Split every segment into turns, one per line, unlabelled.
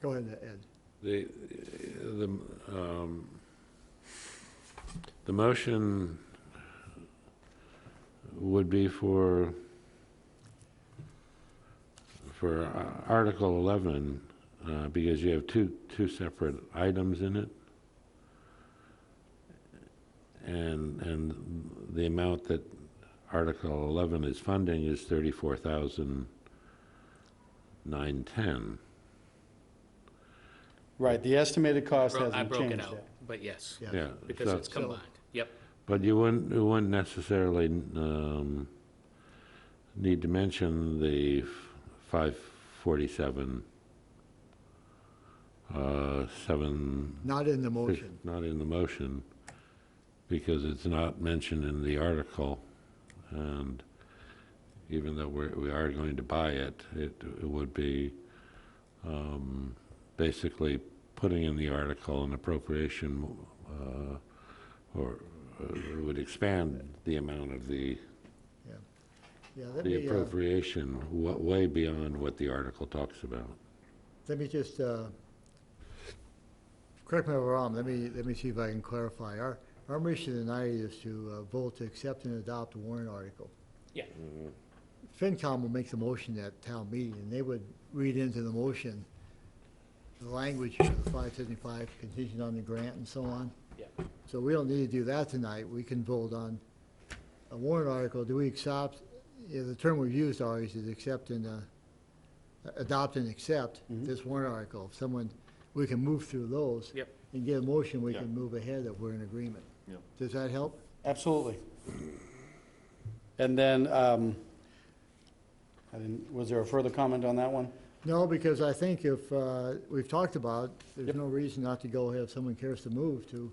Go ahead, Ed.
The, the, um, the motion would be for, for uh, Article 11, uh, because you have two, two separate items in it. And, and the amount that Article 11 is funding is 34,910.
Right, the estimated cost
Bro- I
hasn't
broke it
changed
out,
yet.
but yes,
Yeah.
Yeah.
because
so-
it's combined. Yep,
But you wouldn't, you wouldn't necessarily um, need to mention the f- 547, uh, 7,
Not in the motion.
not in the motion, because it's not mentioned in the article. And even though we're, we are going to buy it, it it would be um, basically putting in the article an appropriation, uh, or uh, it would expand the amount of the,
Yeah, let
the
me, uh,
appropriation wa- way beyond what the article talks about.
let me just, uh, correct me if I'm wrong, let me, let me see if I can clarify. Our, our mission tonight is to uh, vote to accept and adopt a warrant article. Mm-hmm.
yeah,
FinCom will make the motion at town meeting, and they would read into the motion the language of the five seventy-five contingent on the grant and so on.
yeah.
So we don't need to do that tonight. We can vote on a warrant article. Do we accept, yeah, the term we've used always is accept and, uh, adopt and accept
Mm-hmm.
this warrant article. If someone, we can move through those.
Yep.
And get a motion, we
Yeah.
can move ahead if we're in agreement.
Yep.
Does that help?
Absolutely. And then, um, I didn't, was there a further comment on that one?
No, because I think if, uh, we've talked about, there's
Yep.
no reason not to go ahead if someone cares to move to.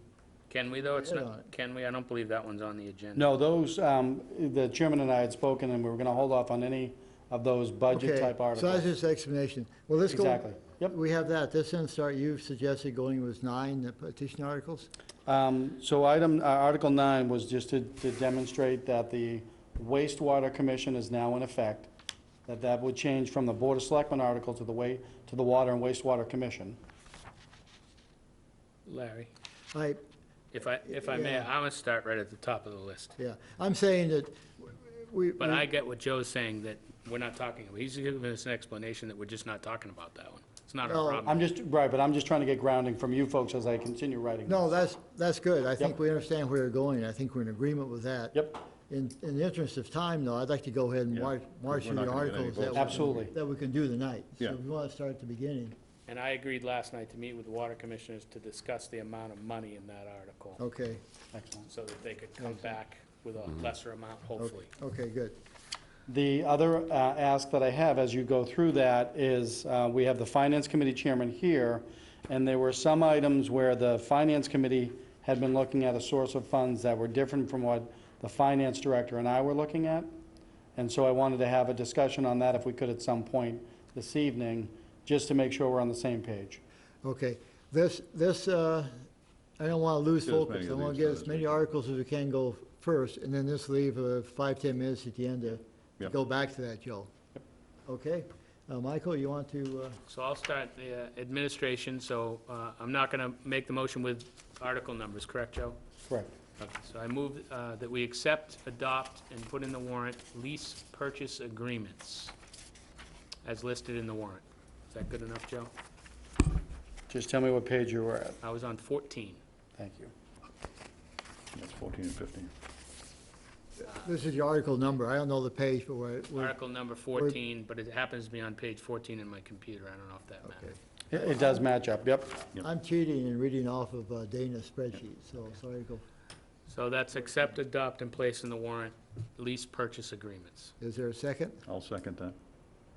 Can we though? It's
Vote on
not,
it.
can we? I don't believe that one's on the agenda.
No, those, um, the chairman and I had spoken, and we were gonna hold off on any of those budget-type
Okay, So that's
articles.
just explanation. Well, let's go.
Exactly. Yep.
We have that. This then start, you suggested going with nine petition articles?
Um, so item, uh, Article nine was just to, to demonstrate that the wastewater commission is now in effect, that that would change from the Board of Selectmen article to the way, to the Water and Wastewater Commission.
Larry,
I,
if I, if I may,
Yeah.
I would start right at the top of the list.
yeah, I'm saying that we.
But
we-
I get what Joe's saying, that we're not talking, he's giving us an explanation that we're just not talking about that one. It's not
No.
our problem.
I'm just, right, but I'm just trying to get grounding from you folks as I continue writing.
No, that's, that's good. I think
Yep.
we understand where you're going. I think we're in agreement with that.
Yep,
In, in the interest of time, though, I'd like to go ahead and march, march
we're
through
not
the
gonna get any
articles that. we
votes.
can-
Absolutely.
That we can do tonight.
Yeah.
So we want to start at the beginning.
And I agreed last night to meet with the water commissioners to discuss the amount of money in that
Oh.
article,
Okay,
excellent.
so that they could come back with a lesser amount, hopefully.
okay, good.
The other uh, ask that I have as you go through that is, uh, we have the Finance Committee Chairman here, and there were some items where the Finance Committee had been looking at a source of funds that were different from what the Finance Director and I were looking at. And so I wanted to have a discussion on that if we could at some point this evening, just to make sure we're on the same page.
Okay, this, this, uh, I don't want to lose
Get as
focus.
many
I
of
want to
these
get
done
as
as
many
we can.
articles as we can go first, and then just leave uh, five, 10 minutes at the end to- to
Yeah.
go back to that, Joe. Okay? Uh, Michael, you want to? uh,
So I'll start the uh, administration, so uh, I'm not going to make the motion with article numbers, correct, Joe?
Correct.
Okay, So I move uh, that we accept, adopt, and put in the warrant lease purchase agreements as listed in the warrant. Is that good enough, Joe?
Just tell me what page you were at.
I was on 14.
Thank you.
That's 14 and 15.
This is your article number. I don't know the page, but we're, we're-
Article number 14, but it happens to be on page 14 in my computer. I don't know if that matters.
It it does match up, yep.
Yep.
I'm cheating and reading off of uh, Dana's spreadsheet, so sorry, go.
So that's accept, adopt, and place in the warrant lease purchase agreements.
Is there a second?
I'll second that.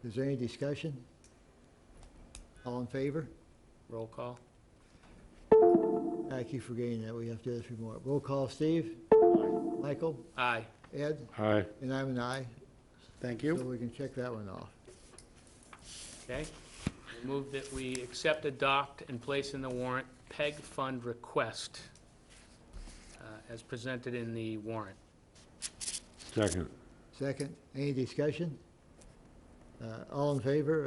Is there any discussion? All in favor?
Roll call?
I keep forgetting that we have to do this more. Roll call, Steve? Michael?
Aye.
Ed?
Aye.
And I'm an aye,
Thank
so
you.
we can check that one off.
Okay. I Move that we accept, adopt, and place in the warrant PEG fund request uh, as presented in the warrant.
Second.
Second, any discussion? Uh, All in favor